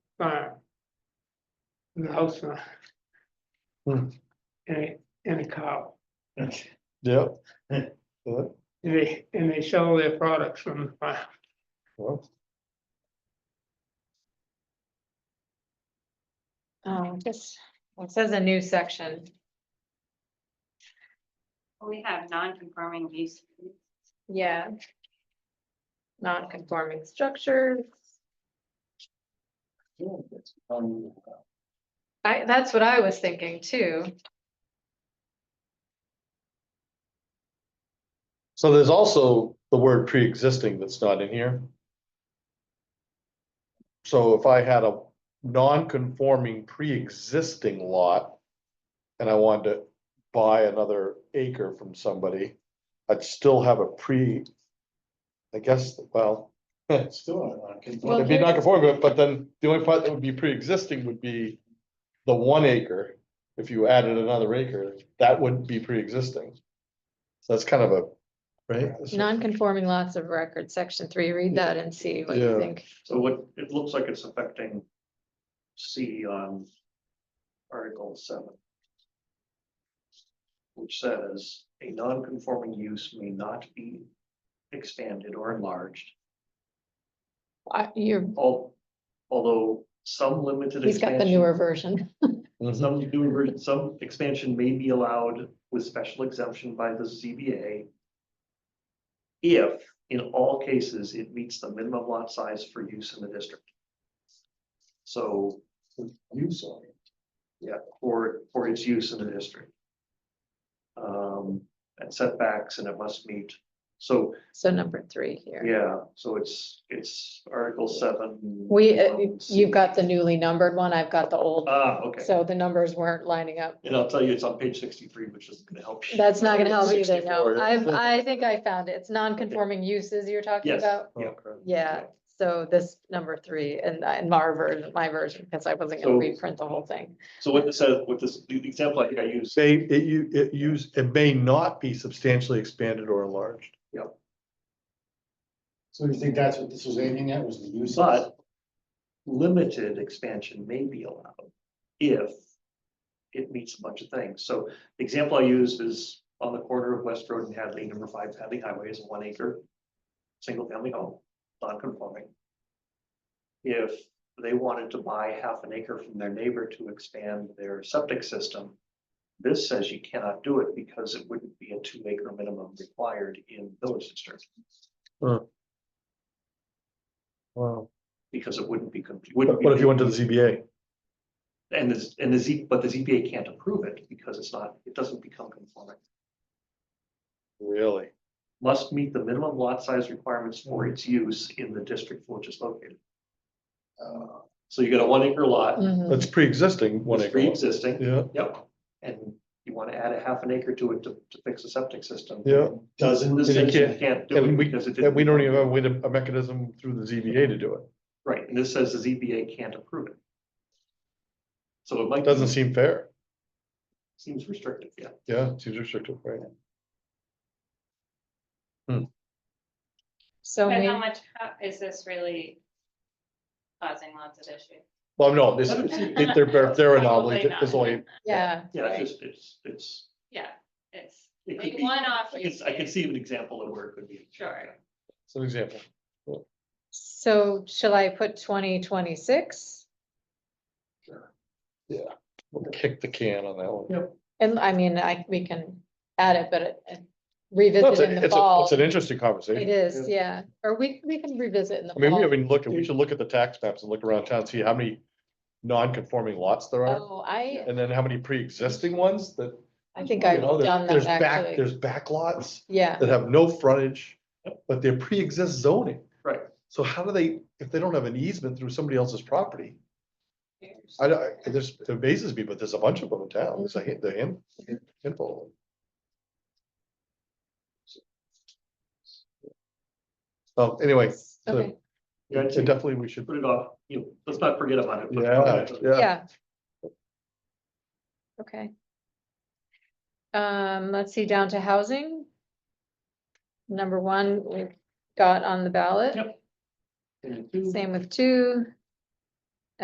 barn. With a house on. Hmm. it, And, a- and a cow, Yep. Yeah, and they, and they sell their products from the farm. well, Um, just, well, it says a new section. We have non-conforming use. Yeah. Non-conforming structures. Um, I, that's what I was thinking too. So there's also the word pre-existing that's not in here. So if I had a non-conforming pre-existing lot. And I wanted to buy another acre from somebody, I'd still have a pre. I guess, well, it's still not Well, it'd conforming. be here's- non-conforming, but then the only part that would be pre-existing would be. The one acre, if you added another acre, that would be pre-existing. So that's kind of a, right? That's- Non-conforming lots of record, section three, read that and see what Yeah. you think. So what, it looks like it's affecting C on Article seven. Which says a non-conforming use may not be expanded or enlarged, I- You're, al- although some limited. he's got the expansion- newer version. Mhm. Some newer, some expansion may be allowed with special exemption by the ZBA. If in all cases it meets the minimum lot size for use in the district. So. Use on it. Yeah, for, for its use in the district. Um, and setbacks and it must meet, so, So number three here. yeah, so it's, it's article seven. We, uh, um, C. you've got the newly numbered one, I've got the old, Ah, okay, so the numbers weren't lining up. and I'll tell you, it's on page sixty-three, which isn't gonna help you. That's not gonna help either, 64, no. yeah. I've, I think I found it. It's non-conforming uses you're talking Yes, about. yeah. Yeah, so this number three and, uh, and my version, my version, because I wasn't gonna So- reprint the whole thing. So what this says, what this, the example I think I used, Say, it you, it use, it may not be substantially expanded or enlarged. So you think that's what this was aiming at, was the use? but limited expansion may be allowed if it meets a bunch of things. So the example I used is on the corner of West Road and Hadley, number five Hadley Highway is a one acre, single family home, non-conforming. If they wanted to buy half an acre from their neighbor to expand their septic system, this says you cannot do it because it wouldn't be a two acre minimum required in village district. Wow. because it wouldn't be. con- wouldn't But be what if you went to the ZBA? And this, and the Z, but the ZBA can't approve it because it's not, it doesn't become conforming. Really? Must meet the minimum lot size requirements for its use in the district for which it's located. Uh, So you got a one acre lot, Mhm. That's pre-existing, one it's acre. lot. pre-existing, Yeah, yep, and you want to add a half an acre to it to, to fix a septic system. yeah. Doesn't, this And you says you can't- can't do And it we, because it and we don't didn't, even have a way to, a mechanism through the ZBA to do it. right, and this says the ZBA can't approve it. So it might. Doesn't seem fair. Seems restrictive, yeah. Yeah, seems restrictive, right? So But how may- much how- is this really causing lots of issues? Well, no, this, they- they're, they're anomaly, Probably not. there's only, yeah, Yeah, Right. it's just, it's, it's, Yeah, it's It could like be- one off. I can, I can see an example of where it could be. Sure. it's an example. so shall I put twenty twenty-six? We'll Kick the can on that one. Yeah. And I mean, I, we can add it, but it- it- No, It's revisit in a- the it's a- fall. it's an interesting It conversation. is, yeah, or we, we can revisit in the I mean, we fall. haven't looked, we should look at the tax maps and look around town, see how many non-conforming lots there are. Oh, I, And then how many pre-existing ones that, I think you I've know, done there's, there's that back, actually. there's backlots Yeah, that have no frontage, but they're pre-exist zoning. Right. So how do they, if they don't have an easement through somebody else's property? I, don't- I, there's, it amazes me, but there's a bunch of them in town. There's a, hand- the hand, handful. of them. Oh, anyway, so okay, Yeah, I'd say definitely we should, put it off, you know, let's not forget about it. but- yeah, yeah. yeah. Okay. Um, let's see, down to housing. Number one, we've got on the ballot, Yep. And two, same with two,